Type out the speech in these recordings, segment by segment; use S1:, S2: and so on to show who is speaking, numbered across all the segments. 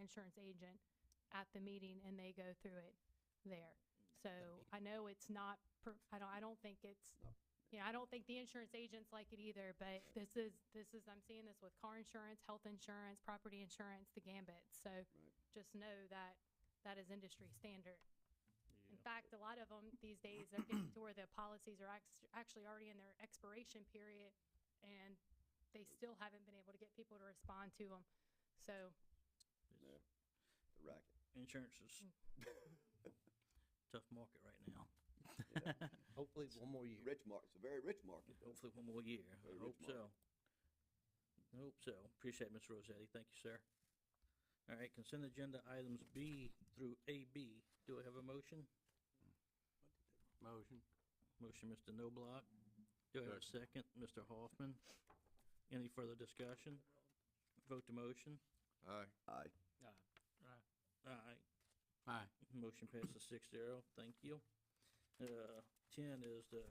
S1: insurance agent at the meeting and they go through it there. So I know it's not, per- I don't, I don't think it's,
S2: No.
S1: you know, I don't think the insurance agents like it either, but this is, this is, I'm seeing this with car insurance, health insurance, property insurance, the gambit. So just know that that is industry standard. In fact, a lot of them these days are getting to where the policies are act- actually already in their expiration period and they still haven't been able to get people to respond to them. So
S2: Yeah, the racket.
S3: Insurance is tough market right now.
S4: Hopefully, one more year.
S2: Rich market, it's a very rich market. though.
S3: Hopefully one more year. I
S2: Very
S3: hope
S2: rich
S3: so. I hope so. Appreciate it, Ms. Rosetti. Thank you, sir. All right, consent agenda items B through AB. Do I have a motion?
S5: Motion.
S3: Motion, Mr. Noblock. Do I have a second? Mr. Hoffman. Any further discussion? Vote to motion.
S5: Aye.
S2: Aye.
S3: Aye.
S5: Aye.
S3: Motion passes six zero. Thank you. Uh, ten is the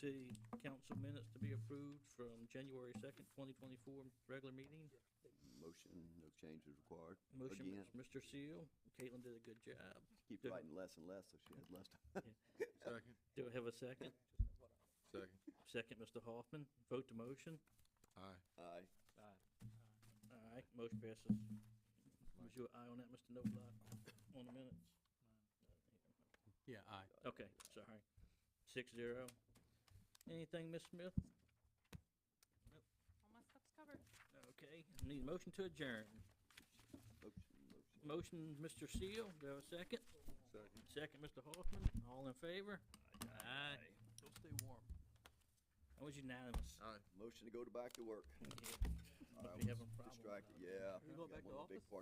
S3: city council minutes to be approved from January second, twenty twenty-four, regular meeting.
S2: Motion, no changes required.
S3: Motion,
S2: Again.
S3: Mr. Seal. Caitlin did a good job.
S2: Keep
S3: Good.
S2: writing less and less, so she has less time.
S5: Second.
S3: Do I have a second?
S5: Second.
S3: Second, Mr. Hoffman. Vote to motion.
S5: Aye.
S2: Aye.
S3: Aye, motion passes. Was your eye on that, Mr. Noblock, on the minutes?
S5: Yeah, aye.
S3: Okay, sorry. Six zero. Anything, Ms. Smith?
S1: all my stuff's covered.
S3: Okay, need a motion to adjourn.
S2: Motion, motion.
S3: Motion, Mr. Seal. Do I have a second?
S5: Second.
S3: Second, Mr. Hoffman. All in favor? Aye.
S5: Go stay warm.
S3: That was unanimous.
S5: Aye.
S2: Motion to go to back to work.
S3: Yeah.
S2: I
S3: Might be
S2: was
S3: having a problem with
S2: distracted,
S3: that.
S2: yeah.
S5: You going
S2: got
S5: back
S2: one of
S5: to
S2: the big
S5: office?
S2: part-